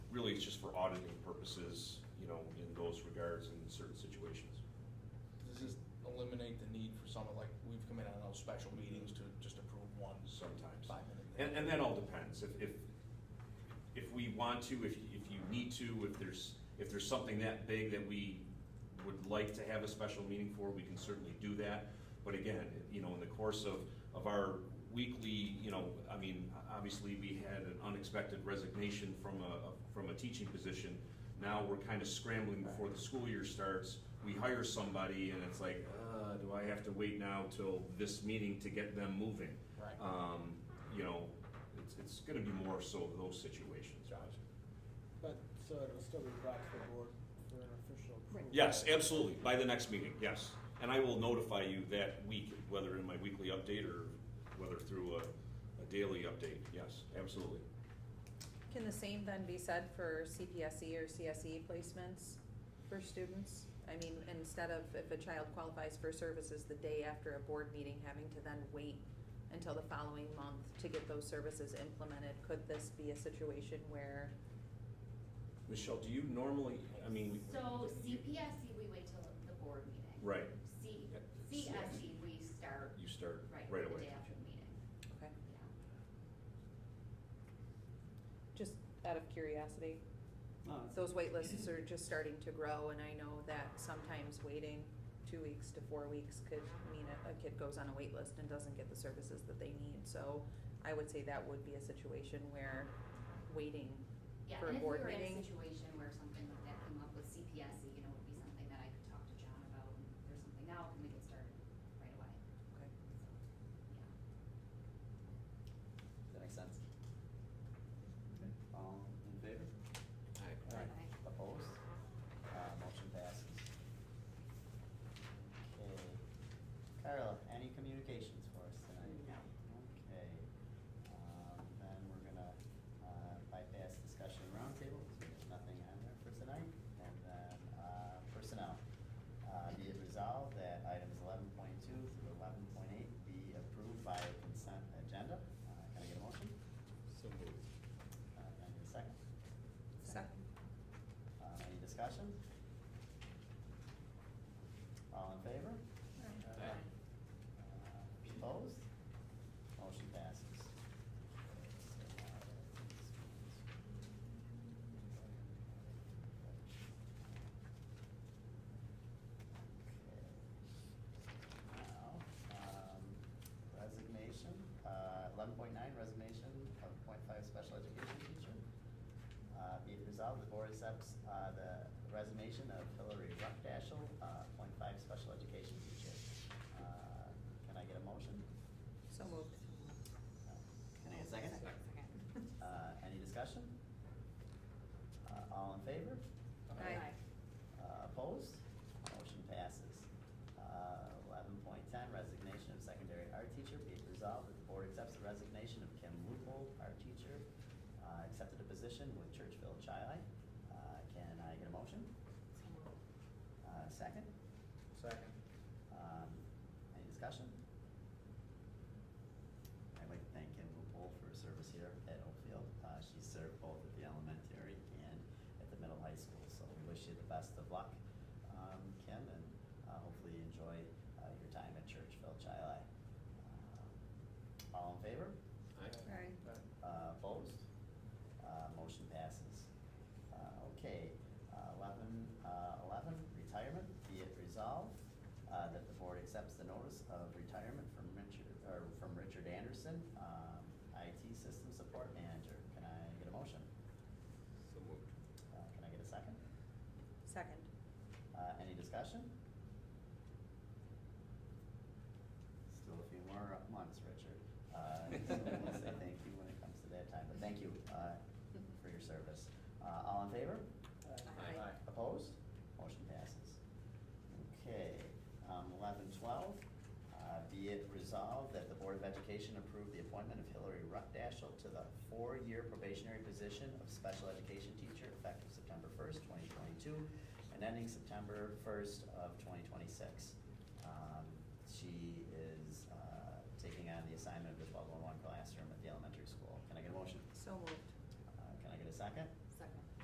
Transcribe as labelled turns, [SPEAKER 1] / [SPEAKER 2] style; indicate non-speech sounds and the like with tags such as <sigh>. [SPEAKER 1] really it's just for auditing purposes, you know, in those regards in certain situations.
[SPEAKER 2] Does this eliminate the need for someone, like, we've come in on those special meetings to just approve one
[SPEAKER 1] Sometimes.
[SPEAKER 2] sometimes five minute thing?
[SPEAKER 1] And, and that all depends, if, if, if we want to, if, if you need to, if there's, if there's something that big that we would like to have a special meeting for, we can certainly do that. But again, you know, in the course of, of our weekly, you know, I mean, obviously, we had an unexpected resignation from a, from a teaching position. Now we're kind of scrambling before the school year starts, we hire somebody and it's like, uh, do I have to wait now till this meeting to get them moving?
[SPEAKER 2] Right.
[SPEAKER 1] um, you know, it's, it's gonna be more so those situations.
[SPEAKER 3] But, so it'll still be brought to the board for an official approval?
[SPEAKER 1] Yes, absolutely, by the next meeting, yes. And I will notify you that week, whether in my weekly update or whether through a, a daily update, yes, absolutely.
[SPEAKER 4] Can the same then be said for CPSE E or CSE placements for students? I mean, instead of if a child qualifies for services the day after a board meeting, having to then wait until the following month to get those services implemented, could this be a situation where,
[SPEAKER 1] Michelle, do you normally, I mean,
[SPEAKER 5] So CPSC, we wait till the board meeting.
[SPEAKER 1] right,
[SPEAKER 5] C,
[SPEAKER 1] Yeah.
[SPEAKER 5] CSC, we start
[SPEAKER 1] you start
[SPEAKER 5] right,
[SPEAKER 1] right
[SPEAKER 5] the
[SPEAKER 1] away.
[SPEAKER 5] day after the meeting,
[SPEAKER 4] okay,
[SPEAKER 5] yeah.
[SPEAKER 4] just out of curiosity, those wait lists are just starting to grow, and I know that sometimes waiting two weeks to four weeks could mean a, a kid goes on a wait list and doesn't get the services that they need, so I would say that would be a situation where waiting,
[SPEAKER 5] Yeah,
[SPEAKER 4] For a
[SPEAKER 5] and if we
[SPEAKER 4] board
[SPEAKER 5] were in a
[SPEAKER 4] meeting?
[SPEAKER 5] situation where something like that came up with CPSC, you know, it would be something that I could talk to John about, and if there's something now, can we get started right away?
[SPEAKER 4] okay.
[SPEAKER 5] So, Yeah.
[SPEAKER 6] That makes sense. Okay, All in favor?
[SPEAKER 3] Aye.
[SPEAKER 6] Opposed? Uh, motion passes. Okay. Carla, any communications for us tonight?
[SPEAKER 5] No.
[SPEAKER 6] Okay, um, then we're gonna, uh, bypass discussion roundtable, because there's nothing on there for tonight. And then, uh, personnel. Uh, be it resolved that items eleven point two through eleven point eight be approved by consent agenda. Uh, can I get a motion?
[SPEAKER 2] So moved.
[SPEAKER 6] Uh, can I get a second?
[SPEAKER 4] Second.
[SPEAKER 6] Uh, any discussion? All in favor? Uh, Opposed? Motion passes. Okay. Now, um, resignation, uh, eleven point nine, resignation of point five special education teacher. Uh, be it resolved, the board accepts, uh, the resignation of Hillary Ruckdashel, uh, point five special education teacher. Uh, Can I get a motion?
[SPEAKER 4] So moved.
[SPEAKER 6] Uh, Can I get a second?
[SPEAKER 4] <laughs>
[SPEAKER 6] Uh, any discussion? Uh, all in favor?
[SPEAKER 4] Aye.
[SPEAKER 6] Uh, opposed? Motion passes. Uh, eleven point ten, resignation of secondary art teacher, be it resolved that the board accepts the resignation of Kim Loophole, art teacher, uh, accepted a position with Churchville Chi-Lite. Uh, can I get a motion? Uh, second?
[SPEAKER 3] Second.
[SPEAKER 6] Um, any discussion? I'd like to thank Kim Loophole for her service here at Oakfield. Uh, she served both at the elementary and at the middle high school, so we wish you the best of luck, um, Kim, and, uh, hopefully you enjoy, uh, your time at Churchville Chi-Lai. Um, All in favor?
[SPEAKER 4] Aye.
[SPEAKER 6] Uh, opposed? Uh, motion passes. Uh, okay, uh, eleven, uh, eleven, retirement, be it resolved, uh, that the board accepts the notice of retirement from Richard, or from Richard Anderson, um, IT system support manager. Can I get a motion?
[SPEAKER 2] So moved.
[SPEAKER 6] Uh, can I get a second?
[SPEAKER 4] Second.
[SPEAKER 6] Uh, any discussion? Still a few more months, Richard. Uh, <laughs> so we'll say thank you when it comes to that time, but thank you, uh, for your service. Uh, all in favor?
[SPEAKER 4] Aye.
[SPEAKER 6] Opposed? Motion passes. Okay, um, eleven twelve, uh, be it resolved that the Board of Education approve the appointment of Hillary Ruckdashel to the four-year probationary position of special education teacher effective September first, twenty twenty-two, and ending September first of twenty twenty-six. Um, she is, uh, taking on the assignment of the twelve-one-one classroom at the elementary school. Can I get a motion?
[SPEAKER 4] So moved.
[SPEAKER 6] Uh, can I get a second?